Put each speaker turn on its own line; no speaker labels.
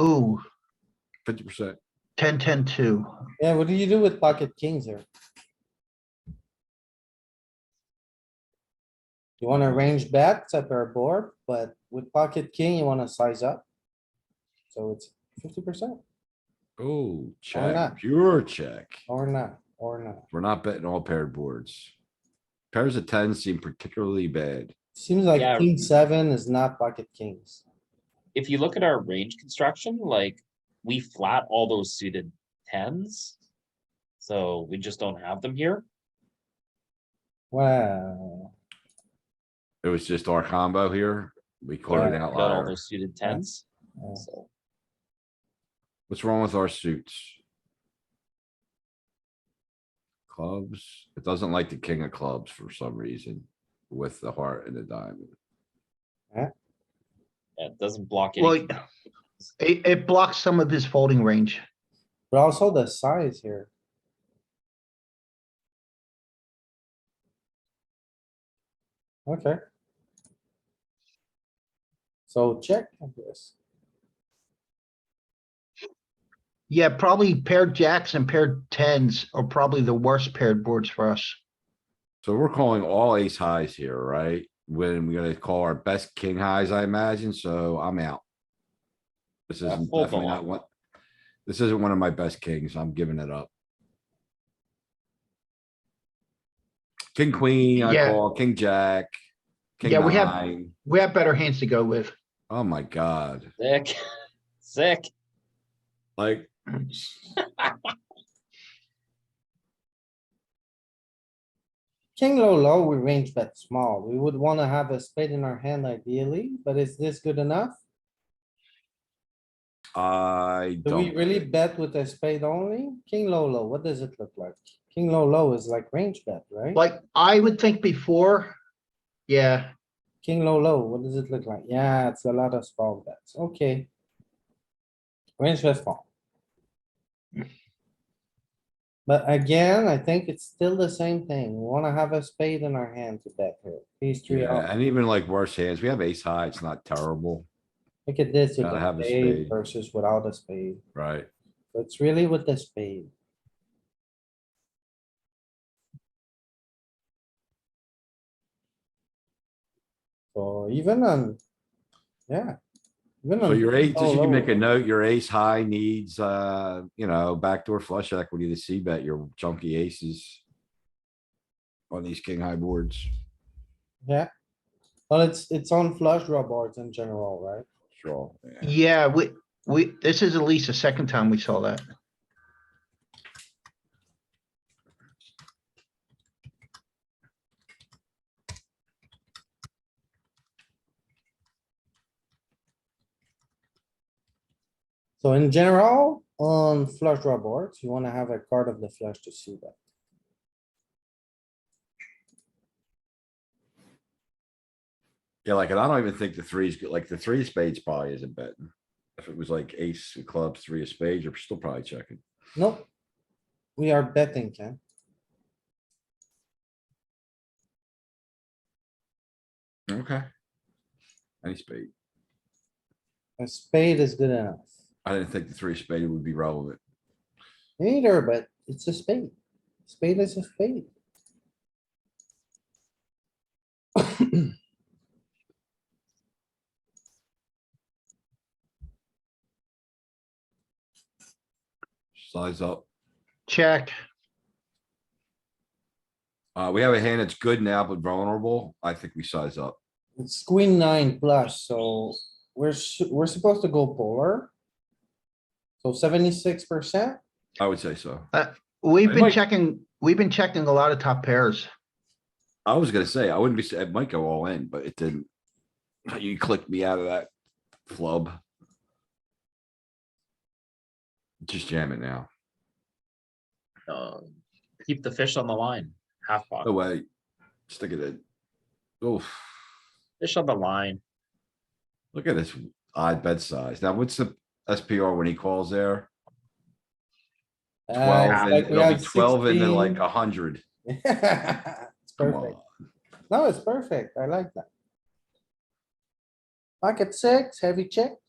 Ooh,
fifty percent.
ten, ten, two.
Yeah, what do you do with pocket kings here? You wanna range bet, set our board, but with pocket king, you wanna size up. So it's fifty percent
Oh,
not?
check, pure check.
or not, or not.
We're not betting all paired boards. Pairs of tens seem particularly bad.
Seems like
Yeah.
king seven is not pocket kings.
if you look at our range construction, like we flat all those suited tens. So we just don't have them here.
Wow,
It was just our combo here. We caught an
Yeah,
We Got all
outlier.
those suited tens.
Yeah.
So
What's wrong with our suits? Clubs, it doesn't like the king of clubs for some reason with the heart and the diamond.
yeah, it doesn't block
Well,
it.
it, it blocks some of his folding range.
but also the size here. Okay. So check, I guess.
Yeah, probably paired jacks and paired tens are probably the worst paired boards for us.
So we're calling all ace highs here, right? When we're gonna call our best king highs, I imagine, so I'm out. This
Yeah,
isn't
fold the
definitely
line.
not one. This isn't one of my best kings. I'm giving it up. King, queen, I
Yeah.
call, king, jack. king
Yeah, we have-
nine.
We have better hands to go with.
Oh my god,
Sick, sick.
like.
King low, low, we range bet small. We would wanna have a spade in our hand ideally, but is this good enough?
I
Do we
don't,
really bet with a spade only? King low, low, what does it look like? King low, low is like range bet, right?
Like, I would think before, yeah,
King low, low, what does it look like? Yeah, it's a lot of small bets, okay. Range bet small. But again, I think it's still the same thing. We wanna have a spade in our hand to bet here. These three,
yeah,
out.
and even like worse hands, we have ace high, it's not terrible,
look at this, you
Gotta
got
have a
spade
spade.
versus without a spade.
right?
So It's really with the spade. So even on, yeah. even
So
on
your ace, just you
low,
can make a
low,
note, your ace high needs, uh, you know, backdoor flush equity to see bet your chunky aces. On these king high boards,
Yeah. Well, it's, it's on flush draw boards in general, right?
sure. yeah.
yeah, we, we, this is at least the second time we saw that.
So in general, on flush draw boards, you wanna have a card of the flush to see that.
Yeah, like, and I don't even think the threes, go- like, the three of spades probably isn't betting. If it was like ace of clubs, three of spades, you're still probably checking.
Nope. We are betting, Ken.
Okay. Any spade.
A spade is good enough.
I didn't think the three of spade would be relevant.
Neither, but it's a spade. Spade is a spade.
Size up.
Check.
Uh, we have a hand that's good now, but vulnerable. I think we size up.
It's queen nine plus, so we're, su- we're supposed to go polar. So seventy-six percent,
I would say so.
We've been
Mike.
checking, we've been checking a lot of top pairs.
I was gonna say, I wouldn't be, s- it might go all in, but it didn't. You clicked me out of that flub. Just jam it now.
Um, keep the fish on the line. Half pot.
No way. Stick it in. Oof,
Fish on the line.
look at this odd bed size. Now, what's the SPR when he calls there?
Uh, it's
Twelve, and
like we
it'll
have
be twelve and then like
16.
a hundred.
It's
Come
perfect.
on.
No, it's perfect. I like that. Pocket six, heavy check.